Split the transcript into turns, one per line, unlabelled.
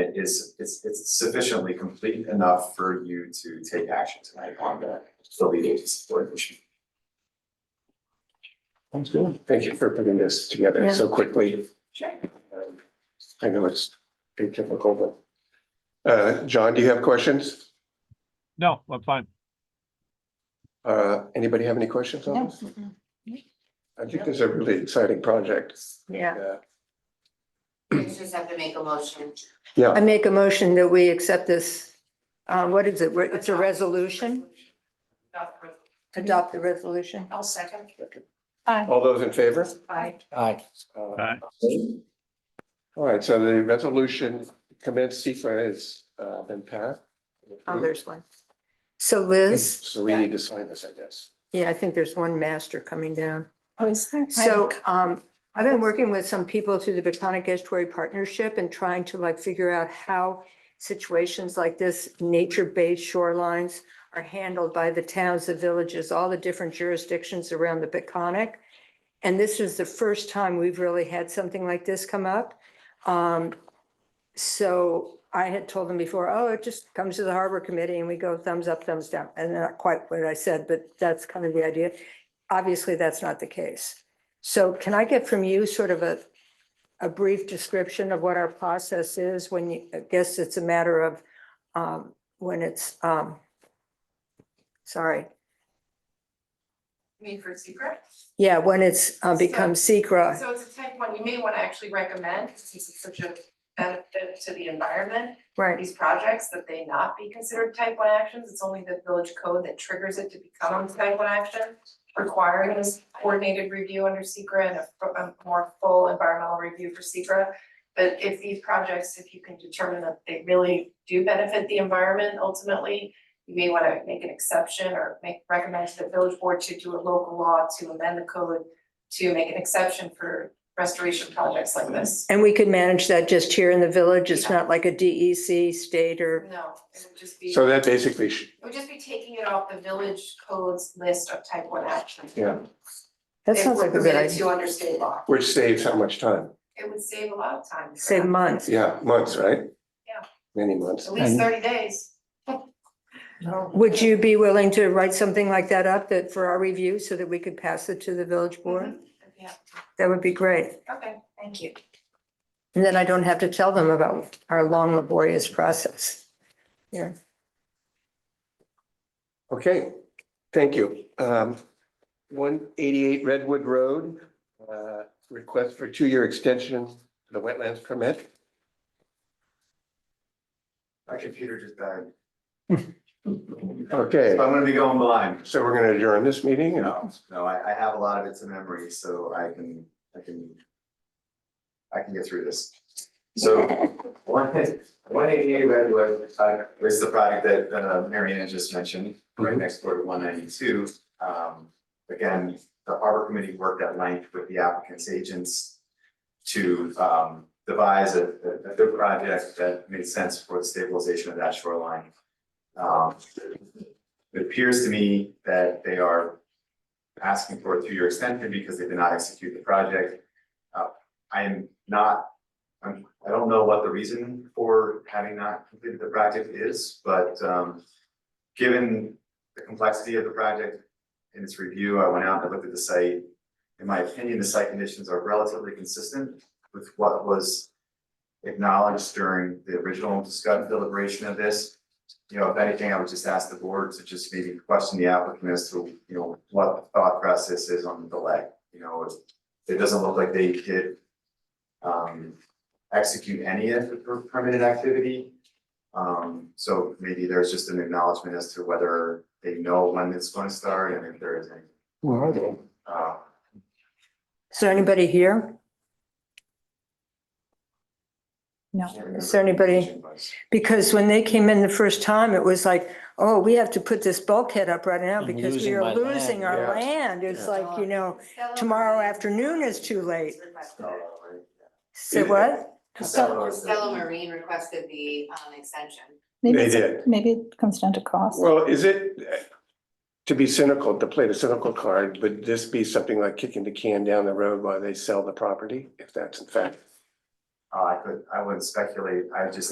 is it's it's sufficiently complete enough for you to take action tonight on the the lead agency board issue.
Sounds good. Thank you for putting this together so quickly.
Sure.
Um, I know it's pretty typical, but. Uh, John, do you have questions?
No, I'm fine.
Uh, anybody have any questions on this?
Mm-mm.
I think this is a really exciting project.
Yeah,
Yeah.
You just have to make a motion.
Yeah,
I make a motion that we accept this, uh, what is it? Re- It's a resolution,
Adopt resolution.
adopt the resolution.
I'll second.
all those in favor?
Aye.
Uh,
Aye.
All right, so the resolution commence CFA has uh, been passed.
Oh, there's one. So Liz,
So we need to sign this, I guess.
yeah, I think there's one master coming down.
Oh, is there?
So um, I've been working with some people through the Beconic Estuary Partnership and trying to like figure out how situations like this, nature-based shorelines are handled by the towns, the villages, all the different jurisdictions around the Beconic. And this is the first time we've really had something like this come up. Um, so I had told them before, oh, it just comes to the harbor committee and we go thumbs up, thumbs down. And not quite what I said, but that's kind of the idea. Obviously, that's not the case. So can I get from you sort of a, a brief description of what our process is when you, I guess it's a matter of, um, when it's, um, sorry,
You mean for secret?
yeah, when it's uh, become secret.
So it's a type one, you may want to actually recommend, since it's such a benefit to the environment,
right?
these projects, that they not be considered type one actions. It's only the village code that triggers it to become a type one action, requiring this coordinated review under secret and a f- a more full environmental review for secret. But if these projects, if you can determine that they really do benefit the environment ultimately, you may want to make an exception or make, recommend to the village board to do a local law to amend the code to make an exception for restoration projects like this.
And we could manage that just here in the village. It's not like a DEC state or,
No, it would just be,
So that basically, sh-
it would just be taking it off the village code's list of type one actions.
yeah,
that sounds like a good
If we're permitted
idea.
to under state law,
which saves how much time?
it would save a lot of time. for
Save
that.
months.
Yeah, months, right?
Yeah.
Many months.
At least thirty days.
Would you be willing to write something like that up that for our review so that we could pass it to the village board?
Mhm. Yeah,
That would be great.
okay, thank you.
And then I don't have to tell them about our long laborious process.
Okay, thank you. Um, one eighty-eight Redwood Road, uh, request for two-year extension to the wetlands permit.
My computer just died.
Okay,
So I'm gonna be going blind.
so we're gonna adjourn this meeting and
No, no, I I have a lot of it to memory, so I can, I can. I can get through this. So one, one eighty-eight Redwood, uh, is the product that uh Mary Ann just mentioned, right
Mhm.
next door to one ninety-two. Um, again, the harbor committee worked at length with the applicant's agents to um devise a a a good project that made sense for the stabilization of that shoreline. Um, it appears to me that they are asking for a two-year extension because they did not execute the project. Uh, I am not, I'm, I don't know what the reason for having not completed the project is, but, um, given the complexity of the project in its review, I went out and looked at the site. In my opinion, the site conditions are relatively consistent with what was acknowledged during the original discussion deliberation of this you know, if anything, I would just ask the board to just maybe question the applicant as to, you know, what the thought process is on the delay. You know, it, it doesn't look like they did um, execute any of the per- permitted activity. Um, so maybe there's just an acknowledgement as to whether they know when it's going to start and if there is any,
where are they?
uh,
Is there anybody here?
No.
Is there anybody- Because when they came in the first time, it was like, oh, we have to put this bulkhead up right now
I'm
because we
losing
are
my land,
losing our
yeah.
land. It's
Yeah.
like, you know, tomorrow afternoon is too late. say
Yeah.
what?
um,
Costello.
Stella Marine requested the um extension.
Maybe,
They
it's- maybe it comes down to cost.
Well, is it, uh, to be cynical, to play the cynical card, would this be something like kicking the can down the road while they sell the property? If that's in fact
Uh, I could, I wouldn't speculate. I just